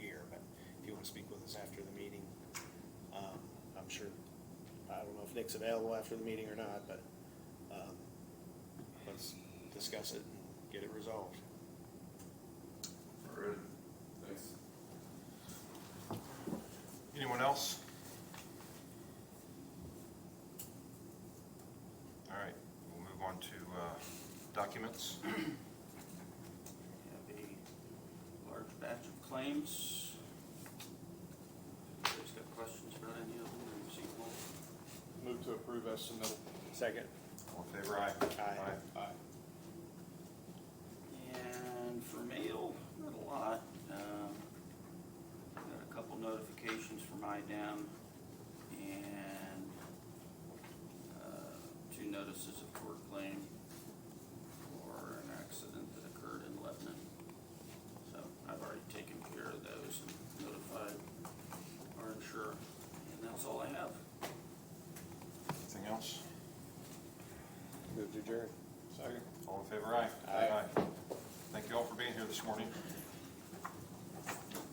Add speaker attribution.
Speaker 1: um, if Nick's available after the meeting or not, but, um, let's discuss it and get it resolved.
Speaker 2: All right, thanks.
Speaker 3: Anyone else? All right, we'll move on to uh, documents.
Speaker 4: have a large batch of claims. Anybody's got questions about any of them, or see them all?
Speaker 5: Move to approve as submitted.
Speaker 1: Second,
Speaker 3: All in favor, aye?
Speaker 1: Aye.
Speaker 5: Aye.
Speaker 4: And for mail, not a lot. Um, Got a couple notifications from IDEM and uh, two notices of court claim for an accident that occurred in Lebanon. So I've already taken care of those and notified our insurer, and that's all I have.
Speaker 3: Anything else?
Speaker 5: Move to adjourn. Second.
Speaker 3: All in favor, aye?
Speaker 5: Aye.
Speaker 3: Thank you all for being here this morning.